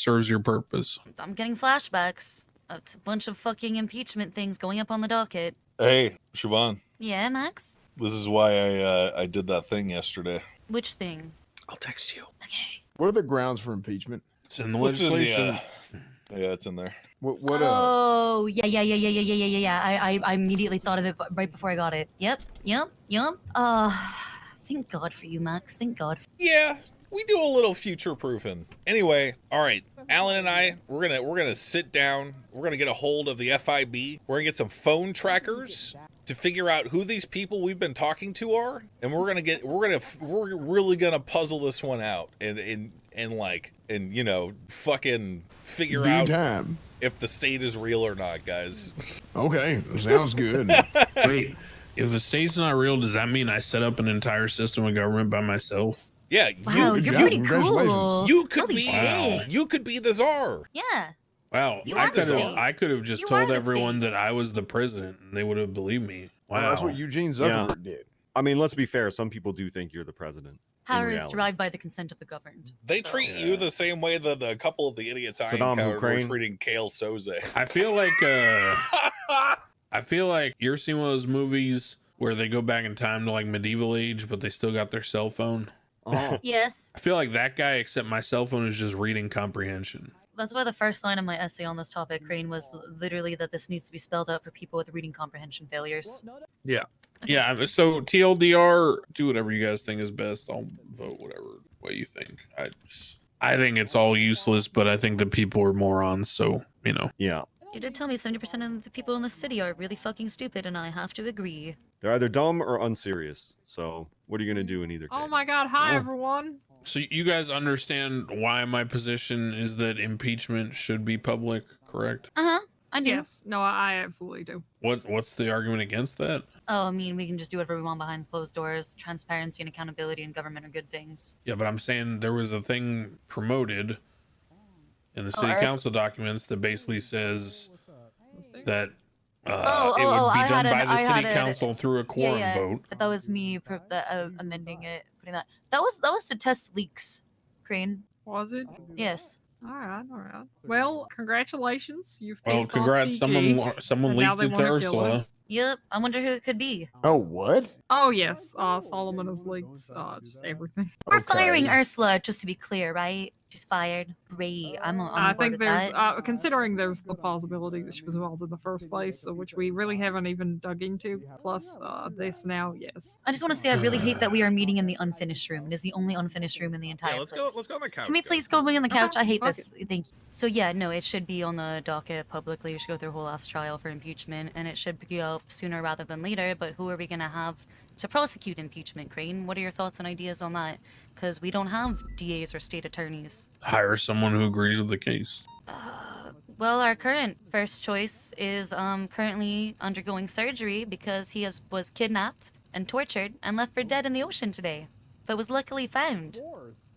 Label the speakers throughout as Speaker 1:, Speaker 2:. Speaker 1: serves your purpose.
Speaker 2: I'm getting flashbacks. It's a bunch of fucking impeachment things going up on the docket.
Speaker 3: Hey, Siobhan,
Speaker 2: Yeah, Max?
Speaker 3: this is why I uh, I did that thing yesterday.
Speaker 2: Which thing?
Speaker 4: I'll text you.
Speaker 2: Okay.
Speaker 5: What are the grounds for impeachment?
Speaker 1: It's in the
Speaker 3: It's in the,
Speaker 1: legislation.
Speaker 3: uh, yeah, it's in there.
Speaker 5: What? What? Uh,
Speaker 2: oh, yeah, yeah, yeah, yeah, yeah, yeah, yeah, yeah, yeah. I, I, I immediately thought of it b- right before I got it. Yep, yep, yep. Uh, thank God for you, Max. Thank God.
Speaker 3: Yeah, we do a little future proofing. Anyway, all right, Alan and I, we're gonna we're gonna sit down. We're gonna get a hold of the FIB. We're gonna get some phone trackers to figure out who these people we've been talking to are, and we're gonna get we're gonna we're really gonna puzzle this one out and and and like and you know fucking figure
Speaker 5: due
Speaker 3: out
Speaker 5: time.
Speaker 3: if the state is real or not, guys.
Speaker 5: Okay, sounds good.
Speaker 1: Wait, if the state's not real, does that mean I set up an entire system of government by myself?
Speaker 3: Yeah,
Speaker 2: Wow,
Speaker 5: good
Speaker 2: you're
Speaker 5: job.
Speaker 2: pretty
Speaker 5: Congratulations.
Speaker 2: cool.
Speaker 3: you could
Speaker 2: Holy
Speaker 3: be
Speaker 2: shit.
Speaker 3: you could be the czar.
Speaker 2: Yeah.
Speaker 1: Wow,
Speaker 2: You
Speaker 1: I
Speaker 2: are the
Speaker 1: could have
Speaker 2: state.
Speaker 1: I could have just
Speaker 2: You are
Speaker 1: told
Speaker 2: the
Speaker 1: everyone
Speaker 2: state.
Speaker 1: that I was the president, and they would have believed me. Wow,
Speaker 5: Well, Oh, that's what Eugene
Speaker 6: Yeah.
Speaker 5: Zuckerberg did.
Speaker 6: I mean, let's be fair. Some people do think you're the president.
Speaker 2: Power is
Speaker 6: reality.
Speaker 2: derived by the consent of the governed.
Speaker 3: They
Speaker 2: So-
Speaker 3: treat you the same way that the couple of the idiots I
Speaker 6: Saddam
Speaker 3: encountered were
Speaker 6: Hussein.
Speaker 3: treating Kale Soze.
Speaker 1: I feel like uh, I feel like you're seeing one of those movies where they go back in time to like medieval age, but they still got their cell phone.
Speaker 5: Oh,
Speaker 2: Yes.
Speaker 1: I feel like that guy, except my cell phone is just reading comprehension.
Speaker 2: That's why the first line of my essay on this topic, Crane, was l- literally that this needs to be spelled out for people with reading comprehension failures.
Speaker 1: Yeah, I'm- so TLDR, do whatever you guys think is best. I'll vote whatever way you think. I just, I think it's all useless, but I think the people are morons. So you know,
Speaker 6: Yeah.
Speaker 2: You did tell me 70% of the people in the city are really fucking stupid, and I have to agree.
Speaker 6: They're either dumb or unserious. So what are you going to do in either case?
Speaker 7: Oh my god, hi
Speaker 6: Oh.
Speaker 7: everyone.
Speaker 1: so you guys understand why my position is that impeachment should be public, correct?
Speaker 2: Uh huh. I do.
Speaker 7: Yes, no, I I absolutely do.
Speaker 1: What what's the argument against that?
Speaker 2: Oh, I mean, we can just do whatever we want behind closed doors. Transparency and accountability in government are good things.
Speaker 1: Yeah, but I'm saying there was a thing promoted in the
Speaker 2: Oh,
Speaker 1: city
Speaker 2: ours-
Speaker 1: council documents that basically says that uh,
Speaker 2: Oh,
Speaker 1: it
Speaker 2: oh,
Speaker 1: would
Speaker 2: oh,
Speaker 1: be
Speaker 2: I
Speaker 1: done
Speaker 2: had an-
Speaker 1: by the
Speaker 2: I
Speaker 1: city
Speaker 2: had an-
Speaker 1: council through a quorum
Speaker 2: yeah.
Speaker 1: vote.
Speaker 5: Oh,
Speaker 2: But that was me pro- that, uh, amending it, putting that. That was that was to test leaks, Crane.
Speaker 7: Was it?
Speaker 2: Yes.
Speaker 7: All right, all right. Well, congratulations. You've
Speaker 1: Well,
Speaker 7: pissed
Speaker 1: congrats!
Speaker 7: off CG,
Speaker 1: Someone lo- someone
Speaker 7: and now
Speaker 1: leaked
Speaker 7: they
Speaker 1: it to
Speaker 7: want to kill
Speaker 1: Ursula.
Speaker 7: us.
Speaker 2: Yep. I wonder who it could be.
Speaker 5: oh what?
Speaker 7: Oh yes, uh, Solomon has leaked uh, just everything.
Speaker 2: We're firing
Speaker 5: Okay.
Speaker 2: Ursula, just to be clear, right? She's fired. Great. I'm on.
Speaker 7: I
Speaker 2: I'm on board
Speaker 7: think
Speaker 2: with
Speaker 7: there's,
Speaker 2: that.
Speaker 7: uh, considering there's the possibility that she was involved in the first place, uh, which we really haven't even dug into. Plus, uh, this now, yes.
Speaker 2: I just want to say I really hate that we are meeting in the unfinished room. It is the only unfinished room in the entire place.
Speaker 3: go on the couch.
Speaker 2: Can we please go lay on the couch? I hate
Speaker 7: fuck
Speaker 2: this. Thank you. So yeah, no, it should be on the docket publicly. We should go through a whole ass trial for impeachment, and it should be up sooner rather than later. But who are we gonna have to prosecute impeachment, Crane? What are your thoughts and ideas on that? Because we don't have DAs or state attorneys.
Speaker 1: Hire someone who agrees with the case.
Speaker 2: Uh, well, our current first choice is um, currently undergoing surgery because he has, was kidnapped and tortured and left for dead in the ocean today, but was luckily found.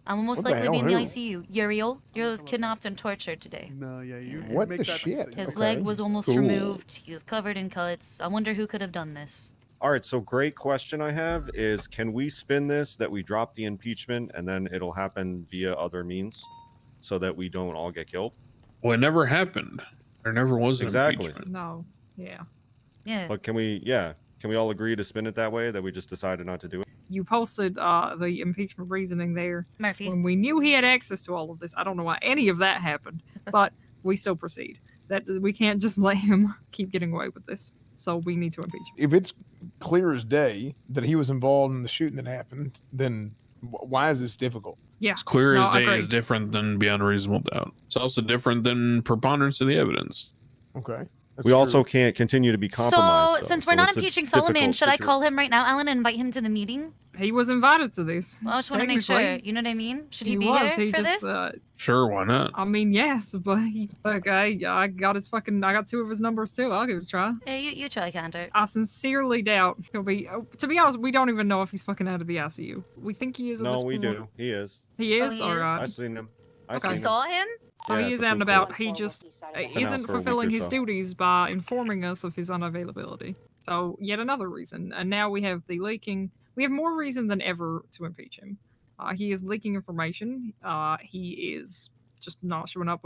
Speaker 2: I'm almost
Speaker 5: What the
Speaker 2: likely to be in the
Speaker 5: hell, who?
Speaker 2: ICU. Uriel, Uriel was kidnapped and tortured today.
Speaker 8: No, yeah, you. you
Speaker 5: What
Speaker 8: make
Speaker 5: the
Speaker 8: that
Speaker 5: shit?
Speaker 8: decision.
Speaker 2: His
Speaker 5: Okay.
Speaker 2: leg was almost
Speaker 1: Cool.
Speaker 2: removed. He was covered in cuts. I wonder who could have done this.
Speaker 6: All right. So great question I have is can we spin this that we drop the impeachment and then it'll happen via other means so that we don't all get killed?
Speaker 1: Well, it never happened. There never was an
Speaker 6: Exactly.
Speaker 1: impeachment.
Speaker 7: No, yeah.
Speaker 2: Yeah.
Speaker 6: But can we, yeah, can we all agree to spin it that way that we just decided not to do it?
Speaker 7: You posted uh, the impeachment reasoning there
Speaker 2: Murphy.
Speaker 7: when we knew he had access to all of this. I don't know why any of that happened, but we still proceed. That we can't just let him keep getting away with this. So we need to impeach him.
Speaker 5: If it's clear as day that he was involved in the shooting that happened, then wh- why is this difficult?
Speaker 7: Yeah.
Speaker 1: It's clear
Speaker 7: No,
Speaker 1: as day
Speaker 7: agreed.
Speaker 1: is different than beyond reasonable doubt. It's also different than preponderance of the evidence.
Speaker 5: Okay. that's
Speaker 6: we also
Speaker 5: true.
Speaker 6: can't continue to be
Speaker 2: So,
Speaker 6: compromised. though,
Speaker 2: since we're not
Speaker 6: it's a
Speaker 2: impeaching Solomon,
Speaker 6: difficult
Speaker 2: should I
Speaker 6: situa-
Speaker 2: call him right now, Alan, and invite him to the meeting?
Speaker 7: He was invited to this.
Speaker 2: Well, I just want to make sure.
Speaker 7: Technically,
Speaker 2: You know what I mean? Should he, be
Speaker 7: was.
Speaker 2: here
Speaker 7: he
Speaker 2: for
Speaker 7: just,
Speaker 2: this?
Speaker 7: Uh,
Speaker 1: Sure, why not?
Speaker 7: I mean, yes, but he, like, I, I got his fucking, I got two of his numbers too. I'll give it a try.
Speaker 2: Yeah, you, you try, Cantor.
Speaker 7: I sincerely doubt he'll be. oh, To be honest, we don't even know if he's fucking out of the ICU. We think he is. at
Speaker 6: No,
Speaker 7: this
Speaker 6: we
Speaker 7: point.
Speaker 6: do. He is.
Speaker 7: He
Speaker 2: Oh,
Speaker 7: is.
Speaker 2: he
Speaker 7: All
Speaker 2: is?
Speaker 7: right.
Speaker 6: I seen him. I
Speaker 7: Okay.
Speaker 6: seen
Speaker 7: You
Speaker 6: him.
Speaker 2: saw him?
Speaker 7: So
Speaker 6: yeah,
Speaker 7: he
Speaker 6: the
Speaker 7: is out and
Speaker 6: food court.
Speaker 7: about. He just uh,
Speaker 6: out for a
Speaker 7: isn't
Speaker 6: week
Speaker 7: fulfilling
Speaker 6: or
Speaker 7: his
Speaker 6: so.
Speaker 7: duties by informing us of his unavailability. So yet another reason. And now we have the leaking. We have more reason than ever to impeach him. Uh, he is leaking information. Uh, he is just not showing up